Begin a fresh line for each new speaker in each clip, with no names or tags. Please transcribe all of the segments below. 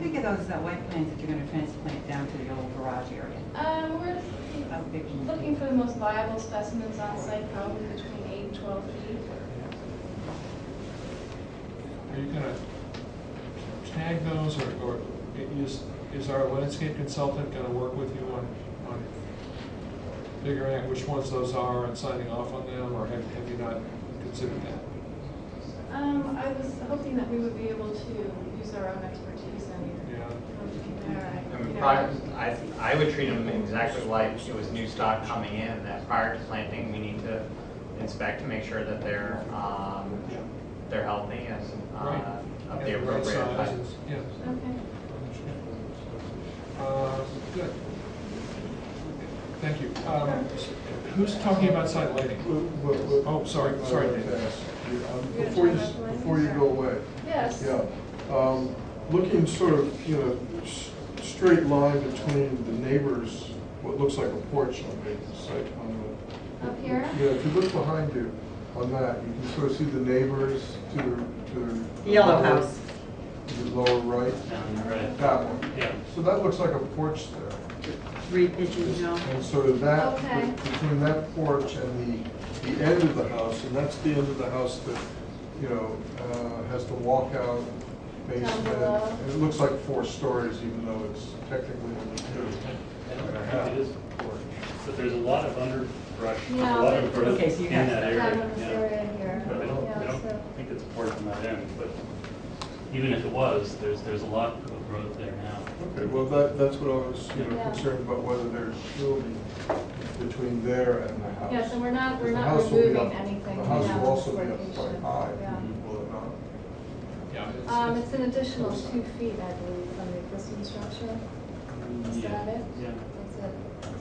big are those uh, white plants that you're going to transplant down to the old garage area?
Um, we're just
How big can you
looking
be?
for the most viable specimens on site, probably between eight and 12 feet.
Are you gonna tag those, or, or is, is our landscape consultant gonna work with you on, on figuring out which ones those are and signing off on them, or have, have you not considered that?
Um, I was hoping that we would be able to use our own expertise and
Yeah,
compare.
I mean,
you know,
prior, I, I would treat them exactly like it was new stock coming in, that prior to planting, we need to inspect to make sure that they're, um,
yeah,
they're healthy and,
Right.
uh, of
Yeah,
the
right
appropriate height.
sizes, yeah.
Okay.
Uh, Good. Thank you. Um, Who's talking about site lighting?
Look, look, look.
Oh, sorry, sorry, Dave.
Yeah, um,
You're
Before you,
gonna
s-
try that one?
before you go away,
Yes.
yeah, um, looking sort of, you know, s- straight line between the neighbor's, what looks like a porch on the site on the.
Up here?
Yeah, if you look behind you on that, you can sort of see the neighbors to the, to the.
Yellow
lower-
house.
to The lower right, that one. Yeah. So that looks like a porch there.
Three Pigeon Hill.
And so that,
Okay.
between that porch and the, the end of the house, and that's the end of the house that, you know, uh, has the walkout basement.
below.
And It looks like four stories, even though it's technically only two.
It is porch, but there's a lot of underbrush, a
Yeah,
lot of
but-
growth
Okay, so you
in
have
that
that.
area.
Down in this
yeah.
area here.
But I don't, I
Yeah, so-
don't think it's porch on that end, but even if it was, there's, there's a lot of growth there now.
Okay, well, that, that's what I was, you know,
Yeah.
concerned about, whether there's shielding between there and the house.
Yeah, so we're not- we're
The
not
house will be
removing
up-
anything
The house
now,
will also be
location,
up quite high,
yeah.
will it not?
Yeah, it's-
Um, it's an additional two feet, I believe, from the existing structure. Is
Yeah,
that it?
Yeah.
That's it.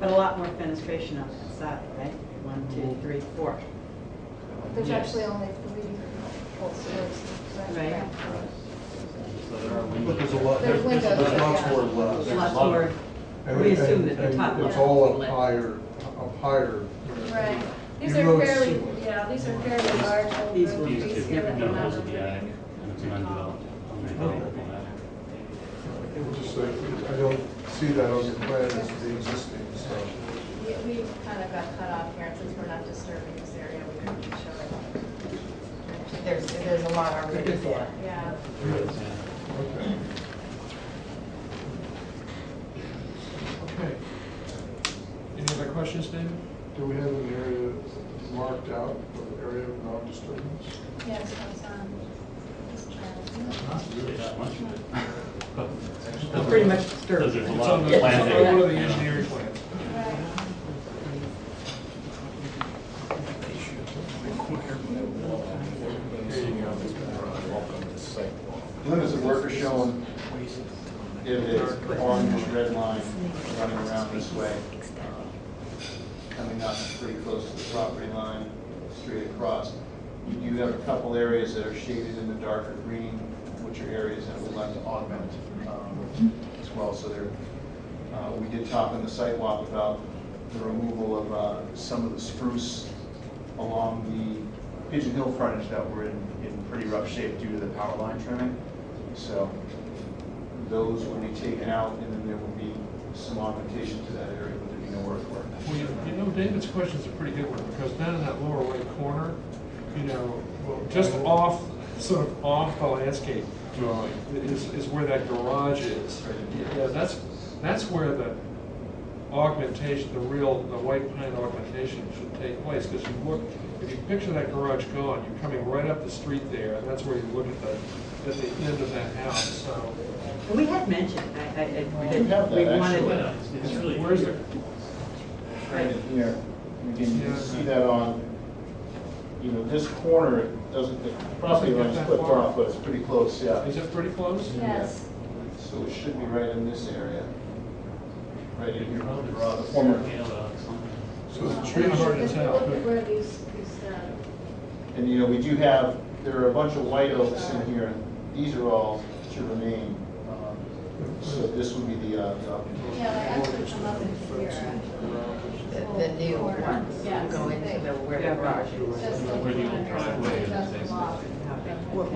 But a lot more fenestration on that side, right? One, two, three, four.
There's
Yes.
actually only three full stories. correct?
Right.
So there are windows.
But there's a lot,
There's
there's, there's
windows,
lots
yeah.
more left.
There's a
Lots
lot
more,
of-
And-
we assume that
and-
the top
And it's
left.
all up higher, up higher.
Right. These
Even though
are
it's
fairly,
similar.
yeah, these are fairly large. old
These
growth
were-
trees
These two,
here that
no,
we're not
those would be ag,
removing.
and it's an undeveloped, undeveloped lot.
It's Just like, I don't see that on your plan as the existing, so.
We, we kind of got cut off here, and since we're not disturbing this area, we couldn't show it.
There's, there's a lot already there.
Yeah.
There is, yeah.
Okay.
Okay. Any other questions, David?
Do we have an area marked out, or area of non-disturbance?
Yeah, so it's um, on this chart.
Not really that much of it. But-
pretty much disturbed.
Because there's a
It's
lot
on
of
the, it's
plants
on the-
there.
one of the
Yeah.
engineering plans.
Right.
There you go.
Limits of work are shown if it's orange, red line running around this way. Coming up pretty close to the property line, straight across. You do have a couple areas that are shaded in the darker green, which are areas that we'd like to augment um, as well. So there, uh, we did talk on the sidewalk about the removal of uh, some of the spruce along the Pigeon Hill frontage that were in, in pretty rough shape due to the power line trimming. So those will be taken out, and then there will be some augmentation to that area, but there'll be no earthwork.
Well, you you know, David's question's a pretty good one, because down in that lower right corner, you know, just
Oh.
off, sort of off the landscape drawing, is, is where that garage is. Yeah, that's, that's where the augmentation, the real, the white pine augmentation should take place, because you look, if you picture that garage gone, you're coming right up the street there, and that's where you look at the, at the end of that house, so.
And We had mentioned, I, I, I-
We do have
we
that,
wanted-
actually.
Yeah, it's- It's really.
Where's it?
Right in here, and again, you can see that on, you know, this corner, it doesn't, the property line's clipped off, but it's pretty close, yeah.
Is it pretty close?
Yes.
So it should be right in this area, right in here,
Probably
uh, the
Rob,
former,
scale out something.
So the
Pretty
trees
hard
are,
to
Let's
tell.
Um, Look at where these, these, uh,
and you know, we do have, there are a bunch of white oaks in here, and these are all to remain. um, So this would be the, uh, the-
yeah, they actually come up into here, actually.
The, the new ones
Yes.
go into the, where the garage is.
Just like
Where the
one or
old
something,
driveway is,
just a lot.
basically.